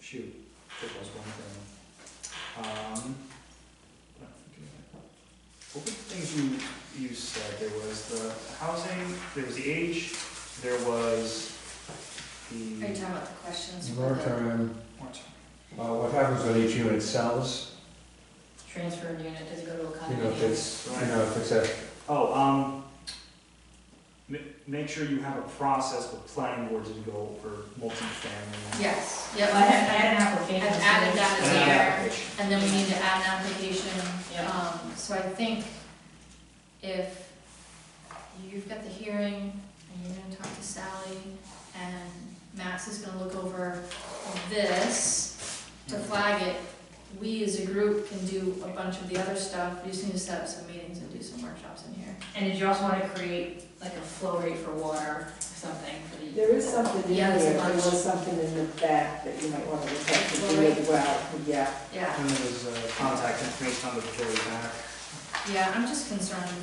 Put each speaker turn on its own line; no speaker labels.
shoot, there was one thing. Um, what am I forgetting? What were the things you, you said, there was the housing, there was the age, there was
Are you
the.
talking about the questions for the
Moratorium,
What?
uh, what happens when each unit sells?
transfer of unit, does it go to a
You know, if
condominium?
it's, you know, if it's a,
Oh, um, ma- make sure you have a process with planning boards to go over multifamily.
Yes,
Well,
yep,
I had, I had an application.
I've added that
And an
there.
application.
and then we need to add an application.
Yeah.
Um, so I think if you've got the hearing, and you're gonna talk to Sally, and Max is gonna look over this to flag it, we as a group can do a bunch of the other stuff, we just need to set up some meetings and do some workshops in here.
And did you also wanna create like a flow rate for water, or something for the?
There is something in
Yeah,
there,
there's a
there
bunch.
was something in the back that you might want to look at,
Well,
to do
right.
as well, yeah.
Yeah,
And there was, uh, contact information on the very back.
yeah, I'm just concerned